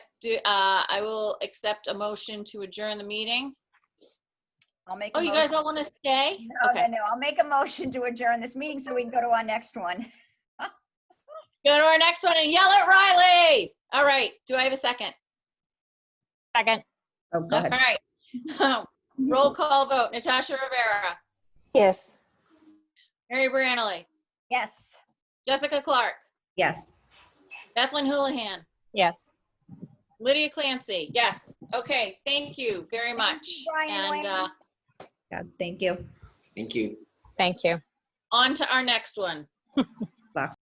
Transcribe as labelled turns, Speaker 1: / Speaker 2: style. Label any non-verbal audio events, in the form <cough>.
Speaker 1: do, uh, I will accept a motion to adjourn the meeting.
Speaker 2: I'll make. a
Speaker 1: Oh, you
Speaker 2: motion-
Speaker 1: guys all want to stay?
Speaker 2: No, no,
Speaker 1: Okay.
Speaker 2: no, I'll make a motion to adjourn this meeting so we can go to our next one.
Speaker 1: Go to our next one and yell at Riley. All right. Do I have a second?
Speaker 3: Second.
Speaker 2: Oh,
Speaker 1: All right. <laughs> Roll call vote. Natasha Rivera,
Speaker 3: Yes.
Speaker 1: Mary Brannely,
Speaker 2: Yes,
Speaker 1: Jessica Clark,
Speaker 4: Yes.
Speaker 1: Ethlyn Houlihan,
Speaker 3: Yes.
Speaker 1: Lydia Clancy. Yes. Okay. Thank you very much.
Speaker 2: Brian
Speaker 1: And
Speaker 2: Wayne.
Speaker 1: uh,
Speaker 4: God, thank you.
Speaker 5: Thank you.
Speaker 3: Thank you.
Speaker 1: on to our next one.